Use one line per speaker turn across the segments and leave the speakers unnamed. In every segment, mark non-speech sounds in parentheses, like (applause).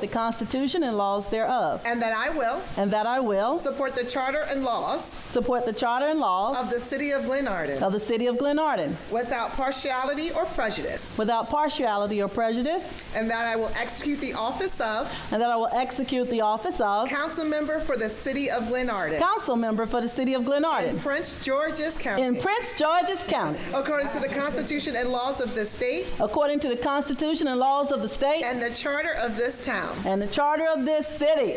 the Constitution and laws thereof,
and that I will
and that I will
support the charter and laws
support the Charter and laws
of the city of Glenarden
of the City of Glenarden
without partiality or prejudice,
without partiality or prejudice,
and that I will execute the office of
and that I will execute the office of
council member for the city of Glenarden
council member for the City of
in
Glenarden
Prince George's
in
County,
Prince George's County,
according to the Constitution and laws of this state
according to the Constitution and laws of the state
and the charter of this town.
and the Charter of this city.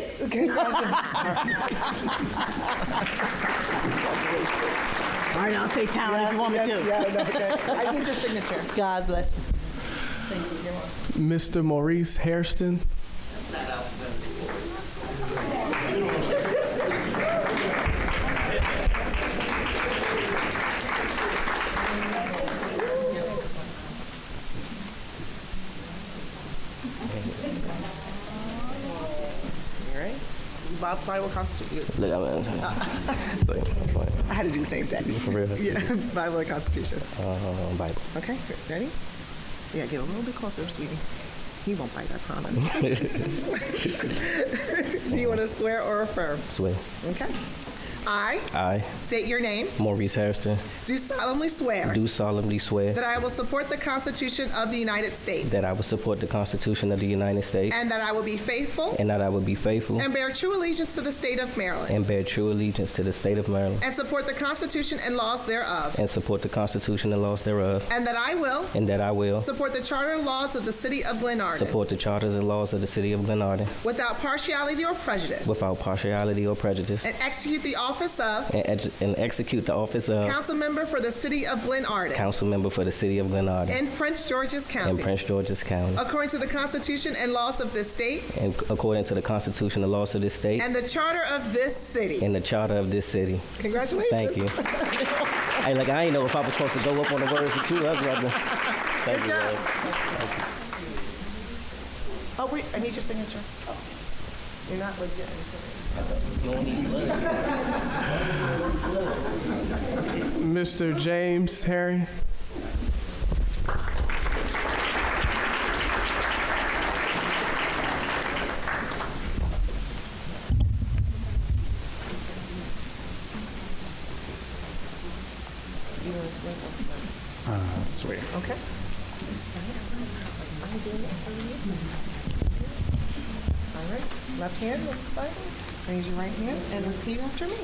All right, I'll say town if you want me to.
I need your signature.
God bless you.
Mr. Maurice Hairston.
All right. Bob Clyde will constitute you.
Look, I'm, (laughs) I'm sorry. Sorry.
I had to do the same thing. (laughs)
For real.
Yeah, Bible and Constitution.
Um, Bible.
Okay, good. ready? Yeah, get a little bit closer, sweetie. He won't bite, I promise. (laughs) Do you want to swear or affirm?
Swear.
Okay. I
I,
state your name,
Maurice Harrison,
do solemnly swear
do solemnly swear
that I will support the Constitution of the United States
that I will support the Constitution of the United States
and that I will be faithful
and that I will be faithful
and bear true allegiance to the state of Maryland
and bear true allegiance to the state of Maryland
and support the Constitution and laws thereof
and support the Constitution and laws thereof
and that I will
and that I will
support the charter and laws of the city of Glenarden
support the charters and laws of the city of Glenarden
without partiality or prejudice
without partiality or prejudice
and execute the office of
and, ex- and execute the office of
Council member for the city of Glen Arden
council member for the city of Glenarden
in Prince George's
in
County.
Prince George's County
According to the Constitution and laws of this state
and according to the Constitution and laws of this state
and the charter of this city.
and the charter of this city.
Congratulations.
Thank you. hey, like I ain't know if I was supposed to go up on the words with you. I'd rather. Thank you.
job.
Lord.
Oh, wait, I need your signature. Oh, You're not legit.
Mr. James Harry.
You want to swear?
Swear.
Okay. All right, left hand, left Bible. Raise your right hand and repeat after me.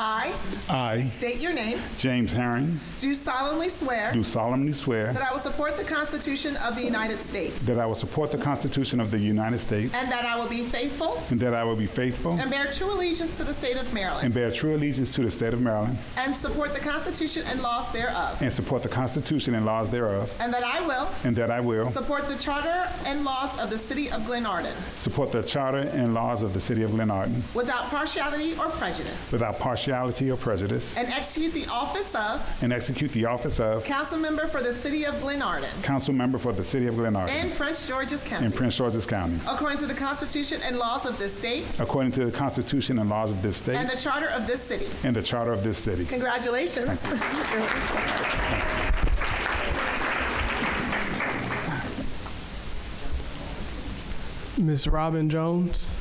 I
I,
state your name,
James Herring,
do solemnly swear
do solemnly swear
that I will support the Constitution of the United States
that I will support the Constitution of the United States
And that I will be faithful
and that I will be faithful
and bear true allegiance to the state of
and
Maryland
bear true allegiance to the state of Maryland
and support the Constitution and laws thereof.
and support the Constitution and laws thereof
And that I will
and that I will
support the charter and laws of the city of Glenarden
support the charter and laws of the city of Glenarden
without partiality or prejudice
without partiality or prejudice
and execute the office of
and execute the office of
council member for the city of Glenarden
council member for the city of Glenarden
in Prince George's County
in Prince George's County
according to the Constitution and laws of this state
according to the Constitution and laws of this state
and the charter of this city.
and the charter of this city.
Congratulations.
Miss Robin Jones.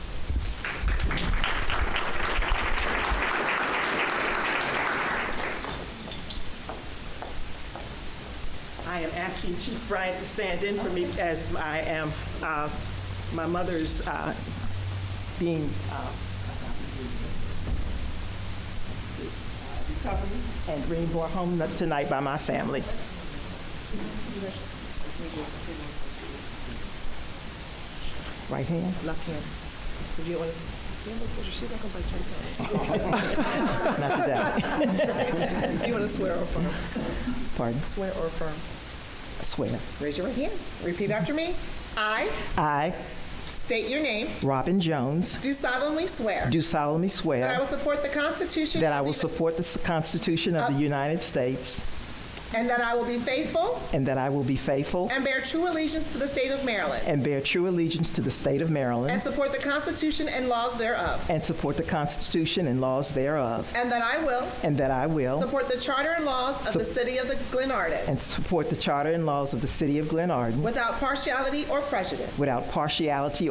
I am asking Chief Bryant to stand in for me as I am, uh, my mother's uh, being uh, recovered and being brought home tonight by my family. Right hand?
Left hand. Would you want to see her? She's not going to bite your hand.
Not today.
You want to swear or affirm?
Pardon?
Swear or affirm?
I swear.
Raise your right hand. Repeat after me. I
I,
state your name.
Robin Jones,
Do solemnly swear
do solemnly
that I
swear
will support the Constitution
that I will
of the-
support the Constitution of the United States
and that I will be faithful
and that I will be faithful
and bear true allegiance to the state of Maryland
And bear true allegiance to the state of
and
Maryland.
support the Constitution and laws thereof.
And support the Constitution and laws thereof.
And that I will
And that I will.
support the charter and laws of
Sup-
the city of the Glenarden
And support the charter and laws of the city of Glenarden
without partiality or prejudice.
without partiality